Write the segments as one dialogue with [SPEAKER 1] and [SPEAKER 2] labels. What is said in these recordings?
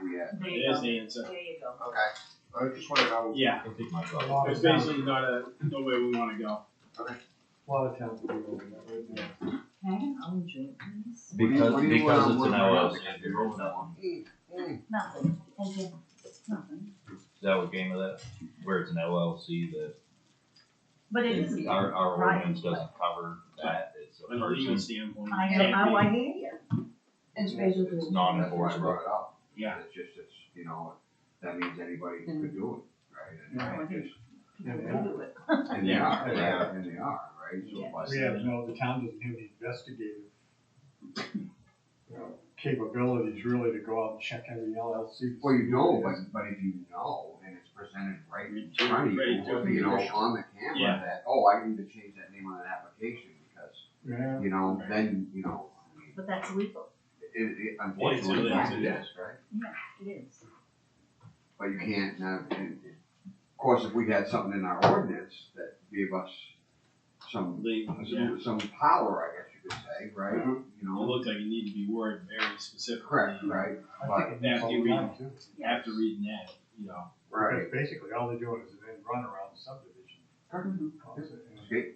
[SPEAKER 1] that?
[SPEAKER 2] There
[SPEAKER 3] It
[SPEAKER 2] you
[SPEAKER 3] is
[SPEAKER 2] go.
[SPEAKER 3] the answer.
[SPEAKER 2] There you go.
[SPEAKER 1] Okay, I just wanna know.
[SPEAKER 3] Yeah,
[SPEAKER 4] I think my
[SPEAKER 5] A
[SPEAKER 4] brother.
[SPEAKER 5] lot
[SPEAKER 3] it's
[SPEAKER 5] of towns,
[SPEAKER 3] basically not a, no way we wanna go.
[SPEAKER 5] a lot of towns are doing that right now.
[SPEAKER 2] Can I have an orange drink, please?
[SPEAKER 1] What
[SPEAKER 4] Because,
[SPEAKER 1] do you
[SPEAKER 4] because
[SPEAKER 1] wanna
[SPEAKER 4] it's an
[SPEAKER 1] work
[SPEAKER 4] hour,
[SPEAKER 1] on?
[SPEAKER 4] if you roll that one,
[SPEAKER 1] Mm, mm.
[SPEAKER 2] Nothing, thank you. Nothing.
[SPEAKER 4] is that what came of that? Where it's an LLC that,
[SPEAKER 2] But it is,
[SPEAKER 4] our, our
[SPEAKER 2] Right.
[SPEAKER 4] ordinance doesn't cover that, it's a
[SPEAKER 3] From a legal
[SPEAKER 4] person,
[SPEAKER 3] standpoint.
[SPEAKER 2] I
[SPEAKER 3] it
[SPEAKER 2] know,
[SPEAKER 3] can't
[SPEAKER 2] I,
[SPEAKER 3] be.
[SPEAKER 2] I hear you. It's basically.
[SPEAKER 4] it's non
[SPEAKER 1] That's why I
[SPEAKER 4] enforceable.
[SPEAKER 1] brought it up.
[SPEAKER 3] Yeah.
[SPEAKER 1] It's just, it's, you know, that means anybody could do it, right? And-
[SPEAKER 2] Mm-hmm. Yeah.
[SPEAKER 1] And just-
[SPEAKER 5] Yeah, they
[SPEAKER 2] People do it.
[SPEAKER 1] and they are, they
[SPEAKER 5] Yeah.
[SPEAKER 1] are, and they are, right? So,
[SPEAKER 2] Yeah.
[SPEAKER 1] but-
[SPEAKER 5] We have, no, the town doesn't have the investigative you know, capabilities really to go out and check every LLC.
[SPEAKER 1] Well, you know, but, but if you know, and it's presented right in front of
[SPEAKER 3] Ready to-
[SPEAKER 1] you, you know, on the
[SPEAKER 3] Yeah.
[SPEAKER 1] camera, that, oh, I need to change that name on an application, because,
[SPEAKER 5] Yeah,
[SPEAKER 1] you know, then, you know, I mean,
[SPEAKER 2] But that's legal,
[SPEAKER 1] it, it, unfortunately,
[SPEAKER 3] it is,
[SPEAKER 1] it
[SPEAKER 3] it
[SPEAKER 1] is, right?
[SPEAKER 2] it is.
[SPEAKER 1] But you can't, uh, and- and- of course, if we had something in our ordinance that gave us some,
[SPEAKER 3] Legal, yeah.
[SPEAKER 1] some, some power, I guess you could say, right? You
[SPEAKER 3] It
[SPEAKER 1] know,
[SPEAKER 3] looked like it needed to be worded very specifically.
[SPEAKER 1] correct, right,
[SPEAKER 5] I think it needs
[SPEAKER 3] After
[SPEAKER 5] all
[SPEAKER 3] you
[SPEAKER 5] the
[SPEAKER 3] read-
[SPEAKER 5] time too.
[SPEAKER 3] After reading that, you know,
[SPEAKER 1] right.
[SPEAKER 5] Because basically all they're doing is an end run around the subdivision. concept, you know.
[SPEAKER 1] Okay.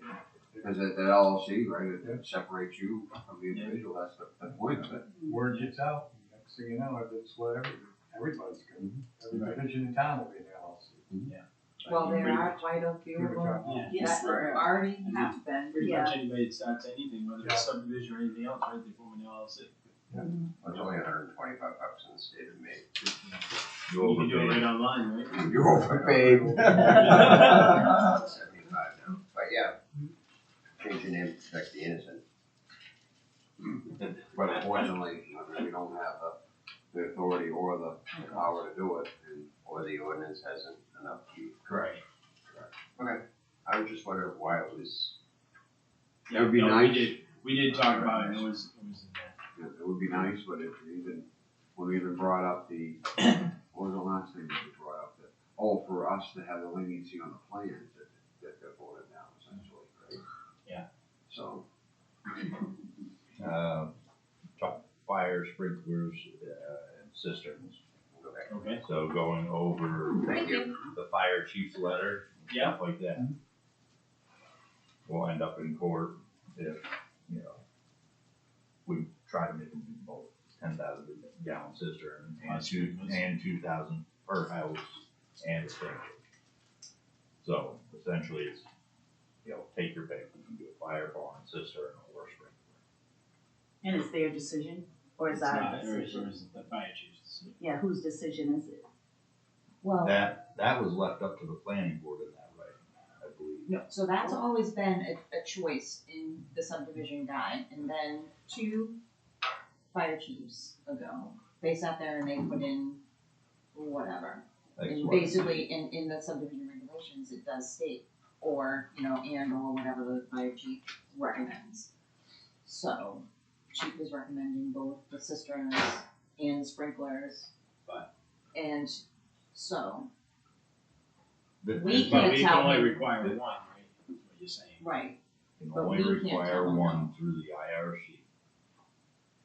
[SPEAKER 1] Cause that, that LLC, right, it- it separates you from the individual, that's the, the point of it.
[SPEAKER 5] Word gets out, and next thing you know, it's what every, everybody's gonna,
[SPEAKER 1] Mm-hmm.
[SPEAKER 5] every division in town will be an LLC.
[SPEAKER 3] I
[SPEAKER 6] Well,
[SPEAKER 3] mean,
[SPEAKER 6] there
[SPEAKER 3] pretty
[SPEAKER 6] are quite a few
[SPEAKER 5] We're
[SPEAKER 6] of them
[SPEAKER 5] talking-
[SPEAKER 3] much- Yeah,
[SPEAKER 6] that already have been.
[SPEAKER 3] pretty
[SPEAKER 2] Yeah.
[SPEAKER 3] much anybody that starts anything, whether
[SPEAKER 5] Yeah.
[SPEAKER 3] it's subdivision or anything else, right, they form an LLC.
[SPEAKER 1] It's only hundred and twenty-five bucks in the state of Maine.
[SPEAKER 4] You
[SPEAKER 3] You can do it
[SPEAKER 4] overpaid.
[SPEAKER 3] right online, right?
[SPEAKER 1] You overpaid.
[SPEAKER 3] Yeah.
[SPEAKER 1] Seventy-five now, but yeah. Change your name to protect the innocent. But unfortunately, we don't have the, the authority or the power to do it, and.
[SPEAKER 7] or the ordinance hasn't enough teeth.
[SPEAKER 1] Correct. Okay,
[SPEAKER 7] I was just wondering why it was,
[SPEAKER 1] It would be
[SPEAKER 3] Yeah, no,
[SPEAKER 1] nice.
[SPEAKER 3] We did, we did talk about it, and it was, it was in there.
[SPEAKER 1] it, it would be nice, but if you even, when we even brought up the, what was the last thing that we brought up? that Oh, for us to have the leniency on the plans that, that got voted down essentially, right?
[SPEAKER 3] Yeah.
[SPEAKER 1] So,
[SPEAKER 4] Uh, fi- fire sprinklers, uh, and cisterns.
[SPEAKER 1] okay,
[SPEAKER 3] Okay,
[SPEAKER 4] So going over
[SPEAKER 1] thank you.
[SPEAKER 4] the fire chief's letter,
[SPEAKER 3] yeah,
[SPEAKER 4] stuff like that. We'll end up in court if, you know, we try to make them do both ten thousand gallon cistern and
[SPEAKER 3] Last
[SPEAKER 4] two,
[SPEAKER 3] year was-
[SPEAKER 4] and two thousand per house and a sprinkler. So essentially it's, you know, take your pick, you can do a fire barn, cistern, or sprinkler.
[SPEAKER 2] And it's their decision, or is
[SPEAKER 3] it's
[SPEAKER 2] our
[SPEAKER 3] not, or it's,
[SPEAKER 2] decision?
[SPEAKER 3] or it's the fire chief's.
[SPEAKER 2] Yeah, whose decision is it? Well,
[SPEAKER 6] Oh.
[SPEAKER 4] That, that was left up to the planning board in that way, I believe.
[SPEAKER 6] No, so that's always been a, a choice in the subdivision guide, and then two fire chiefs ago, they sat there and they put in whatever.
[SPEAKER 4] That's
[SPEAKER 6] And
[SPEAKER 4] what it
[SPEAKER 6] basically, in, in the subdivision regulations, it does state, or, you know, and or whatever the fire chief recommends. So, chief is recommending both the cisterns and sprinklers.
[SPEAKER 3] But-
[SPEAKER 6] And so,
[SPEAKER 4] is.
[SPEAKER 6] We
[SPEAKER 4] This-
[SPEAKER 3] But
[SPEAKER 6] can't
[SPEAKER 3] we
[SPEAKER 6] tell
[SPEAKER 3] can only
[SPEAKER 6] him.
[SPEAKER 3] require one, right, is what you're saying.
[SPEAKER 6] right,
[SPEAKER 4] can
[SPEAKER 6] But
[SPEAKER 4] only
[SPEAKER 6] we can't tell
[SPEAKER 4] require
[SPEAKER 6] them
[SPEAKER 4] one through the IRC.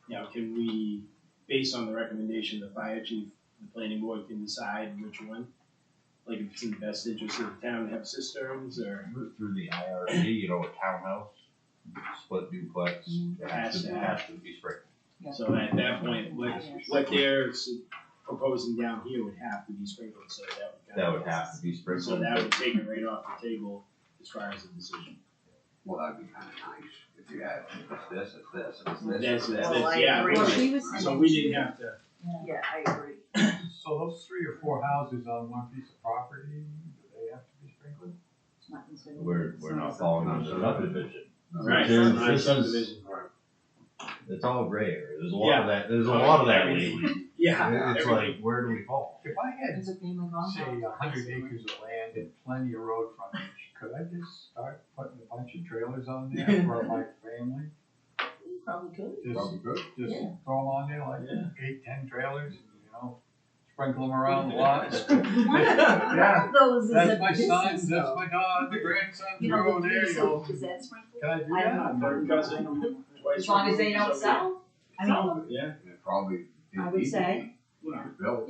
[SPEAKER 3] Now, can we, based on the recommendation, the fire chief, the planning board can decide which one? Like if it's in the best interest of the town to have cisterns or
[SPEAKER 4] Through through the IRC, you know, a townhouse, split duplex, it has to, it has to be sprinkled.
[SPEAKER 3] So at that point, what, what they're s- proposing down here would have to be sprinkled, so that would.
[SPEAKER 4] That
[SPEAKER 3] kinda-
[SPEAKER 4] would have to be
[SPEAKER 3] So
[SPEAKER 4] sprinkled.
[SPEAKER 3] that would take it right off the table as far as the decision.
[SPEAKER 1] Well, that'd be kinda nice, if you had, it's this, it's this, it's this,
[SPEAKER 3] That's,
[SPEAKER 1] it's this.
[SPEAKER 2] Well,
[SPEAKER 3] that's,
[SPEAKER 2] I
[SPEAKER 3] yeah,
[SPEAKER 2] agree.
[SPEAKER 6] Well,
[SPEAKER 3] right.
[SPEAKER 6] she was saying.
[SPEAKER 3] so we didn't have to,
[SPEAKER 2] yeah, I agree.
[SPEAKER 5] So those three or four houses on one piece of property, do they have to be sprinkled?
[SPEAKER 6] It's not considered-
[SPEAKER 4] We're,
[SPEAKER 6] it's
[SPEAKER 4] we're
[SPEAKER 6] not
[SPEAKER 4] not falling under
[SPEAKER 1] Not
[SPEAKER 4] subdivision.
[SPEAKER 3] right,
[SPEAKER 4] There's-
[SPEAKER 3] not
[SPEAKER 4] this is-
[SPEAKER 3] subdivision.
[SPEAKER 4] It's all gray area, there's a lot of that, there's a lot of that lately.
[SPEAKER 3] Yeah,
[SPEAKER 4] It's like,
[SPEAKER 3] everything,
[SPEAKER 4] where do we fall?
[SPEAKER 5] If I had
[SPEAKER 6] It's a family
[SPEAKER 5] say
[SPEAKER 6] compound.
[SPEAKER 5] a hundred acres of land and plenty of road frontage, could I just start putting a bunch of trailers on there for my family?
[SPEAKER 2] You probably could.
[SPEAKER 5] Just,
[SPEAKER 1] Probably good.
[SPEAKER 5] just
[SPEAKER 6] Yeah.
[SPEAKER 5] throw them on there like
[SPEAKER 3] Yeah.
[SPEAKER 5] eight, ten trailers, and you know, sprinkle them around the lot.
[SPEAKER 2] One of, one
[SPEAKER 5] Yeah.
[SPEAKER 2] of those is a
[SPEAKER 5] That's my
[SPEAKER 2] business
[SPEAKER 5] son, that's
[SPEAKER 2] though.
[SPEAKER 5] my daughter, the grandson,
[SPEAKER 2] You
[SPEAKER 5] go
[SPEAKER 2] know, the
[SPEAKER 5] there, you know.
[SPEAKER 2] diesel, is that sprinkled?
[SPEAKER 5] Can I do
[SPEAKER 2] I
[SPEAKER 5] that?
[SPEAKER 2] don't know.
[SPEAKER 3] third cousin, twice.
[SPEAKER 6] As long as they
[SPEAKER 3] removed,
[SPEAKER 6] don't
[SPEAKER 3] so
[SPEAKER 6] sell,
[SPEAKER 3] we-
[SPEAKER 2] I mean,
[SPEAKER 3] Yeah.
[SPEAKER 1] And it probably.
[SPEAKER 6] I would say.
[SPEAKER 1] Built.